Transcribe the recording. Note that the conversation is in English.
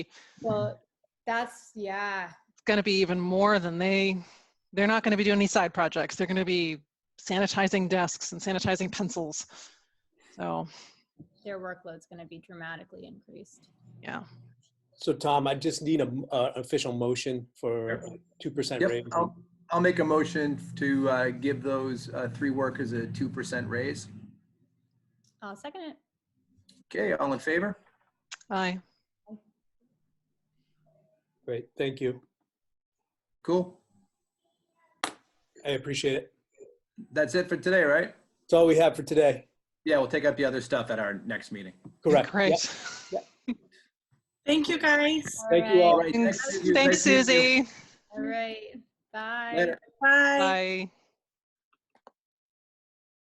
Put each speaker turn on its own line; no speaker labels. Well, that's, yeah.
It's going to be even more than they, they're not going to be doing any side projects. They're going to be sanitizing desks and sanitizing pencils. So,
their workload's going to be dramatically increased.
yeah.
So Tom, I just need a, m- uh, official motion for two percent
Yep,
raise.
I'll, I'll make a motion to uh, give those uh, three workers a 2% raise.
I'll second it.
Okay, all in favor?
Aye.
Great, thank you.
Cool.
I appreciate it.
That's it for today, right?
That's all we have for today.
Yeah, we'll take up the other stuff at our next meeting.
Correct. Yep.
Great.
Thank you, guys.
Thank you all.
All right,
Thanks,
thank you.
thanks
Nice to meet you.
Susie.
All right, bye.
Later.
Bye.
Bye.